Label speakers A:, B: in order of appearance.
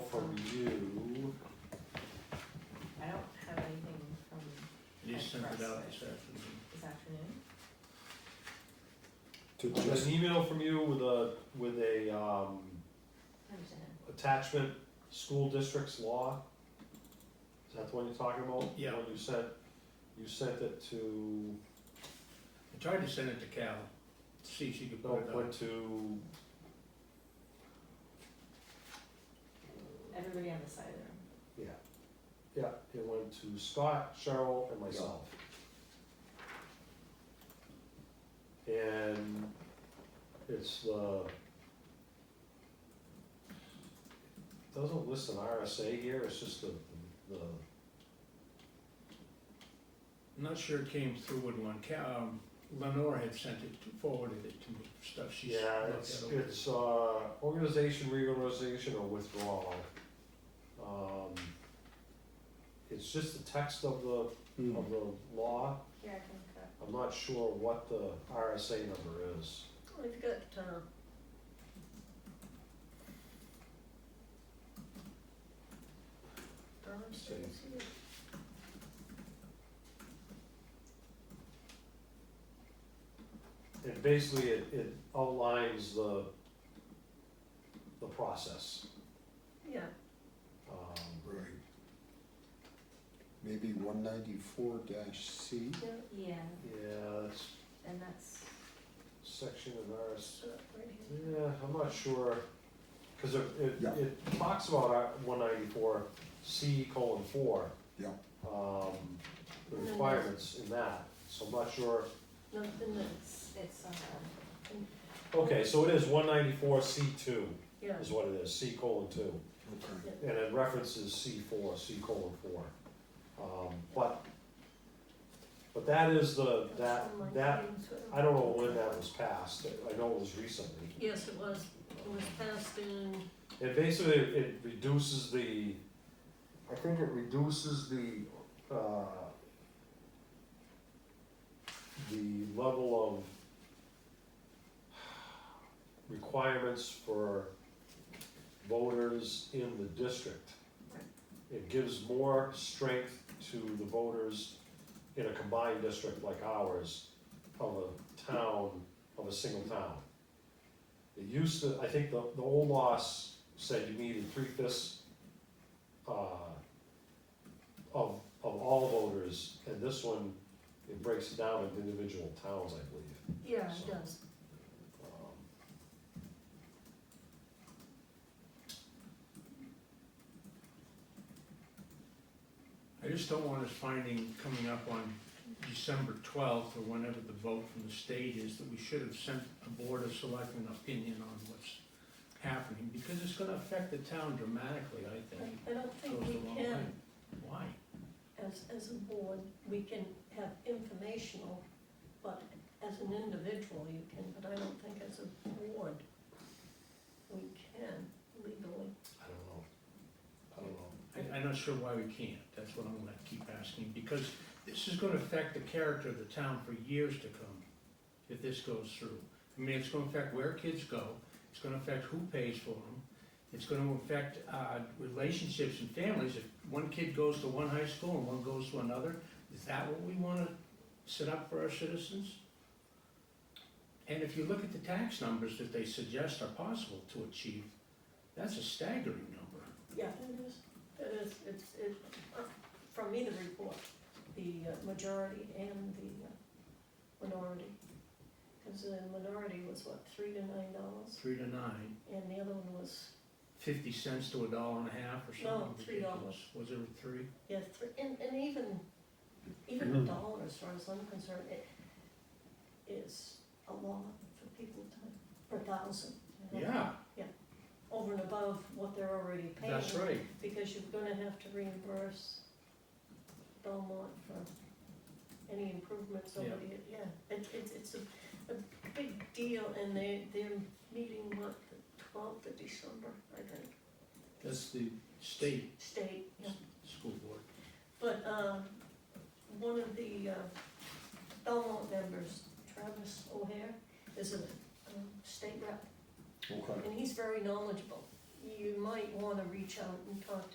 A: this afternoon.
B: this afternoon.
C: To
A: An
C: just,
A: email from you with a, with a, um,
B: I understand.
A: attachment, school districts law. Is that the one you're talking about?
D: Yeah.
A: The one you sent, you sent it to,
D: I tried to send it to Cal, see if she could
A: no,
D: put
A: it
D: it on.
A: went to.
B: Everybody on this side of the room.
A: Yeah, yeah, it went to Scott, Cheryl, and myself. And it's the, doesn't list an RSA here, it's just the, the,
D: I'm not sure it came through in one, Cal, um, Lenore had sent it, to- forwarded it to me, stuff she's looked
A: yeah,
D: at
A: it's,
D: over.
A: it's, uh, organization, reorganization, or withdrawal. Um, It's just the text of the,
C: mm,
A: of the law,
B: Here, I can cut.
A: I'm not sure what the RSA number is.
B: We've got, uh.
A: It basically, it, it outlines the, the process.
B: Yeah.
A: Um,
C: right. Maybe one ninety-four dash C,
B: Yeah,
A: Yeah, it's
B: and that's,
A: section of ours,
B: right here.
A: yeah, I'm not sure, cause it, it,
C: Yeah.
A: it talks about uh, one ninety-four C colon four.
C: Yeah.
A: Um, the
B: And then
A: requirements in that, so I'm not sure,
B: Nothing that's, it's, um,
A: okay, so it is one ninety-four C two
B: yeah.
A: is what it is, C colon two.
C: okay.
A: and it references C four, C colon four. Um, but, but that is the, that, that, I don't know when that was passed, I know it was recently.
B: Yes, it was, it was passed in,
A: It basically, it reduces the, I think it reduces the, uh, the level of requirements for voters in the district. It gives more strength to the voters in a combined district like ours of a town, of a single town. It used to, I think the, the old loss said you needed three fifths, uh, of, of all voters, and this one, it breaks it down into individual towns, I believe.
B: yeah,
A: it
B: it does.
A: Um,
D: I just don't want us finding, coming up on December twelfth, or whenever the vote from the state is, that we should have sent a board of selectmen opinion on what's happening, because it's gonna affect the town dramatically, I think.
E: I- I don't think
D: Goes
E: we
D: a long way.
E: can,
D: Why?
E: as, as a board, we can have informational, but as an individual, you can, but I don't think as a board, we can legally.
A: I don't know, I don't know.
D: I, I'm not sure why we can't, that's what I'm gonna keep asking, because this is gonna affect the character of the town for years to come, if this goes through. I mean, it's gonna affect where kids go, it's gonna affect who pays for them, it's gonna affect, uh, relationships and families, if one kid goes to one high school and one goes to another, is that what we wanna set up for our citizens? And if you look at the tax numbers that they suggest are possible to achieve, that's a staggering number.
E: Yeah, it is, it is, it's, it, uh, from either report, the uh, majority and the uh, minority. Because the minority was what, three to nine dollars,
D: Three to nine,
E: and the other one was,
D: fifty cents to a dollar and a half or
E: No,
D: something ridiculous.
E: three dollars.
D: Was it a three?
E: yeah, three, and, and even, even a
D: Mm-hmm.
E: dollar, as far as I'm concerned, it is a lot for people to, for a thousand. you know,
D: Yeah,
E: Over and above what they're already paying.
D: that's right.
E: Because you're gonna have to reimburse Belmont for any improvements over
D: Yeah.
E: the, yeah, it's, it's, it's a, a big deal, and they, they're meeting, what, the twelfth of December, I think,
D: That's the state
E: state, yeah.
D: school board.
E: But, um, one of the, uh, Belmont members, Travis O'Hare, is a, um, state rep,
C: Okay.
E: and he's very knowledgeable. You might wanna reach out and talk to